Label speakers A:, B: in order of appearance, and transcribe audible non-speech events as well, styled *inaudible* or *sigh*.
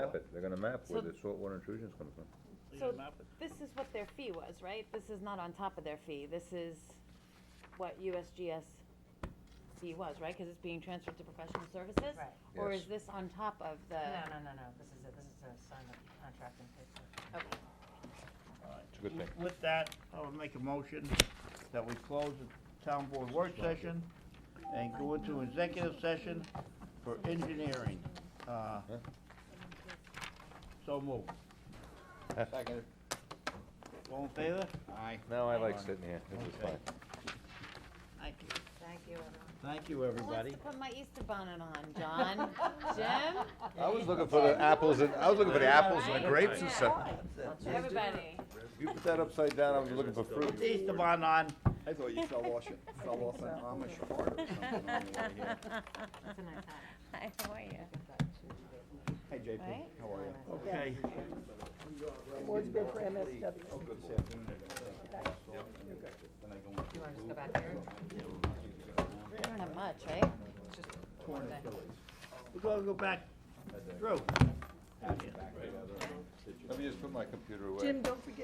A: map it, they're gonna map where
B: So-
A: the saltwater intrusion's coming from.
B: You
C: So
B: gotta map it.
C: this is what their fee was, right? This is not on top of their fee. This is what USGS fee was, right? Because it's being transferred to professional services?
D: Right.
C: Or
A: Yes.
C: is this on top of the?
D: No, no, no, no, this is, a- this is a signed up contract and paper.
C: Okay.
B: Alright.
A: It's a good thing.
B: With that, I would make a motion that we close the town board work session and go into executive session for engineering. Uh, So move.
A: Second.
B: All in favor? Aye.
A: No, I like sitting here, this is
B: Okay.
A: fine.
B: Thank you.
D: Thank you, everyone.
B: Thank you,
C: Who wants
B: everybody.
C: to put my Easter bonnet on, John?
D: *laughs*
C: Jim?
A: I was looking for the apples and, I was looking for the apples and the grapes and stuff.
C: Everybody.
A: You put that upside down, I was looking for fruit.
B: Put the Easter bun on.
E: I thought you fell off, fell off an Amish cart or something on the way here.
D: It's a nice hat.
C: Hi, how are you?
E: Hey, JP,
C: Right?
E: how are you?
B: *laughs* Okay.
F: Board's been for MSW.
D: Do you wanna just go back there?
C: I don't have much, right?
B: We're gonna go back through.
A: Let me just put my computer away.
F: Jim, don't forget